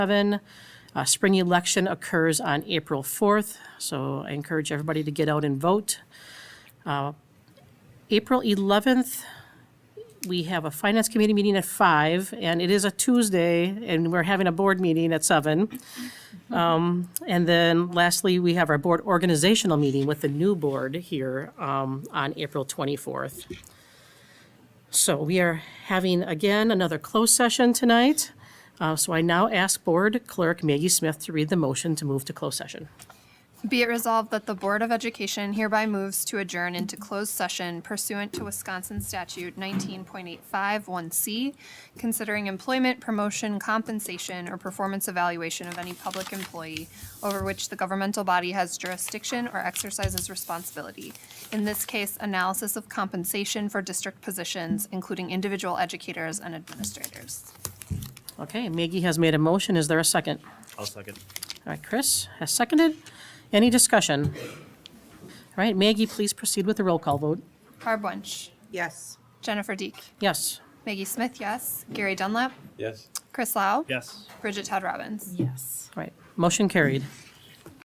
seven. Uh, Spring election occurs on April 4th, so I encourage everybody to get out and vote. Uh, April 11th, we have a Finance Committee meeting at five, and it is a Tuesday, and we're having a board meeting at seven. Um, And then lastly, we have our board organizational meeting with the new board here um, on April 24th. So we are having, again, another closed session tonight. Uh, So I now ask Board Clerk Maggie Smith to read the motion to move to closed session. Be it resolved that the Board of Education hereby moves to adjourn into closed session pursuant to Wisconsin Statute 19.851C, considering employment, promotion, compensation, or performance evaluation of any public employee over which the governmental body has jurisdiction or exercises responsibility. In this case, analysis of compensation for district positions, including individual educators and administrators. Okay, Maggie has made a motion. Is there a second? I'll second. All right, Chris has seconded. Any discussion? All right, Maggie, please proceed with the roll call vote. Barb Wunsch, Yes. Jennifer Deek, Yes. Maggie Smith, yes. Gary Dunlap, Yes. Chris Lau. Yes. Bridget Todd Robbins. Yes. All right, motion carried.